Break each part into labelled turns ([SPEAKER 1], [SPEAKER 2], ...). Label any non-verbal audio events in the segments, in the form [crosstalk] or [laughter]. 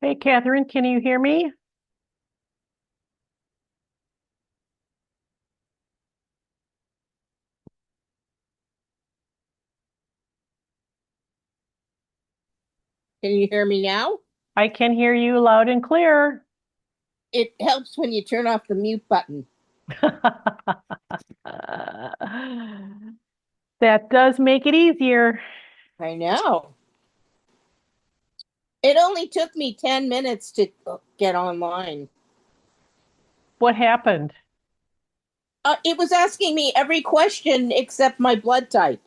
[SPEAKER 1] Hey, Catherine, can you hear me?
[SPEAKER 2] Can you hear me now?
[SPEAKER 1] I can hear you loud and clear. [laughs]
[SPEAKER 2] It helps when you turn off the mute button.
[SPEAKER 1] That does make it easier.
[SPEAKER 2] I know. It only took me 10 minutes to get online.
[SPEAKER 1] What happened?
[SPEAKER 2] Uh, it was asking me every question except my blood type.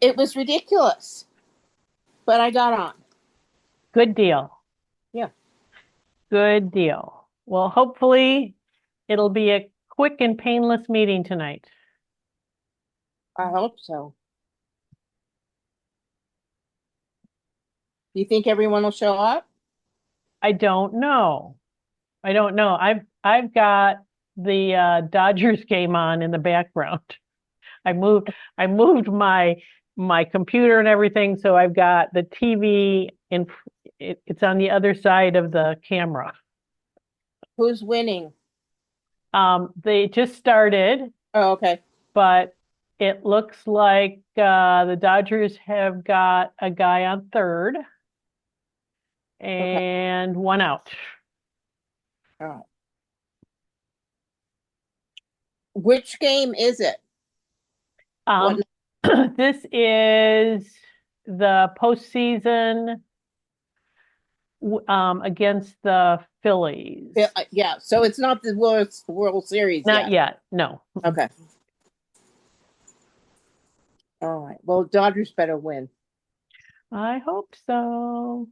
[SPEAKER 2] It was ridiculous. But I got on.
[SPEAKER 1] Good deal.
[SPEAKER 2] Yeah.
[SPEAKER 1] Good deal. Well, hopefully it'll be a quick and painless meeting tonight.
[SPEAKER 2] I hope so. Do you think everyone will show up?
[SPEAKER 1] I don't know. I don't know. I've I've got the uh, Dodgers game on in the background. [laughs] I moved I moved my my computer and everything, so I've got the TV in f- it, it's on the other side of the camera.
[SPEAKER 2] Who's winning?
[SPEAKER 1] Um, they just started,
[SPEAKER 2] Oh, okay.
[SPEAKER 1] but it looks like uh, the Dodgers have got a guy on third and one out.
[SPEAKER 2] Which game is it?
[SPEAKER 1] Um, [clears throat] this is the postseason w- um, against the Phillies.
[SPEAKER 2] Yeah, uh, Yeah, so it's not the World, World Series
[SPEAKER 1] Not
[SPEAKER 2] yet.
[SPEAKER 1] yet, no.
[SPEAKER 2] Okay. All right, well, Dodgers better win.
[SPEAKER 1] I hope so.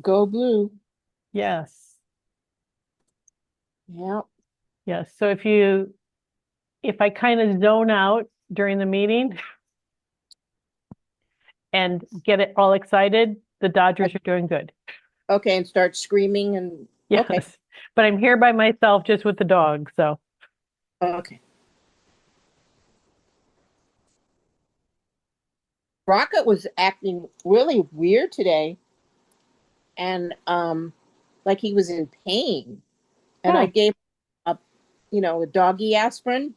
[SPEAKER 2] Go blue.
[SPEAKER 1] Yes,
[SPEAKER 2] Yeah,
[SPEAKER 1] yes. So if you, if I kind of zone out during the meeting and get it all excited, the Dodgers are doing good.
[SPEAKER 2] okay, and start screaming and, Okay.
[SPEAKER 1] Yes. But I'm here by myself just with the dog, so.
[SPEAKER 2] okay. Rocket was acting really weird today. And, um, like he was in pain. And I
[SPEAKER 1] Hmm.
[SPEAKER 2] gave a, you know, a doggy aspirin.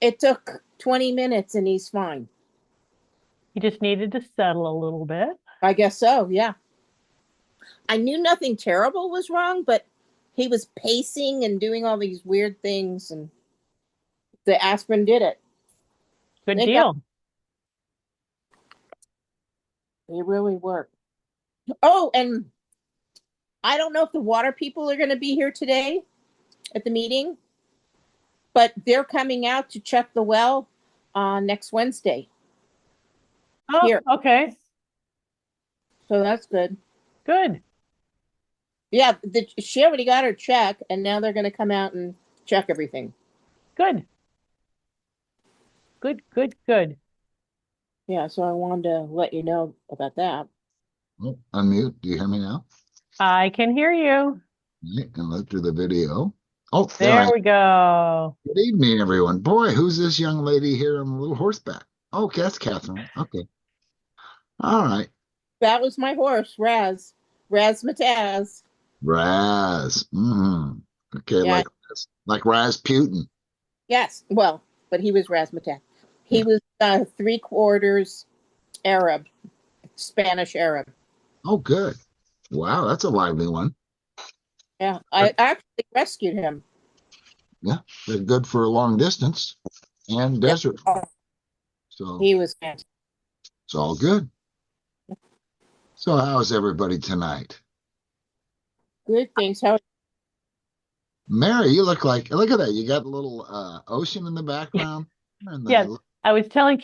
[SPEAKER 2] It took twenty minutes and he's fine.
[SPEAKER 1] He just needed to settle a little bit.
[SPEAKER 2] I guess so, yeah. I knew nothing terrible was wrong, but he was pacing and doing all these weird things, and the aspirin did it.
[SPEAKER 1] Good
[SPEAKER 2] They got-
[SPEAKER 1] deal.
[SPEAKER 2] It really worked. Oh, and I don't know if the water people are going to be here today at the meeting, but they're coming out to check the well on next Wednesday.
[SPEAKER 1] Oh,
[SPEAKER 2] Here.
[SPEAKER 1] okay,
[SPEAKER 2] So that's good.
[SPEAKER 1] good.
[SPEAKER 2] Yeah, the, she already got her check, and now they're going to come out and check everything.
[SPEAKER 1] Good. Good, good, good.
[SPEAKER 2] Yeah, so I wanted to let you know about that.
[SPEAKER 3] Oh, Unmute, do you hear me now?
[SPEAKER 1] I can hear you.
[SPEAKER 3] Yeah, And look through the video. Oh, there I
[SPEAKER 1] There we go.
[SPEAKER 3] Good evening, everyone. Boy, who's this young lady here on the little horseback? Oh, that's Catherine. Okay. All right.
[SPEAKER 2] That was my horse, Raz. Razmataz.
[SPEAKER 3] Raz. hmm Okay,
[SPEAKER 2] Yeah.
[SPEAKER 3] like like Rasputin.
[SPEAKER 2] Yes. Well, but he was Razmataz. He
[SPEAKER 3] Yeah.
[SPEAKER 2] was uh, three quarters Arab, Spanish Arab.
[SPEAKER 3] Oh, good. Wow, that's a lively one.
[SPEAKER 2] Yeah. I actually rescued him.
[SPEAKER 3] They're good for long distance and
[SPEAKER 2] Yeah.
[SPEAKER 3] desert. So
[SPEAKER 2] He was fantastic.
[SPEAKER 3] it's all good. So how's everybody tonight?
[SPEAKER 2] good things. How
[SPEAKER 3] Mary, you look like look at that. You got a little uh ocean in the background. and the
[SPEAKER 1] Yes. I was telling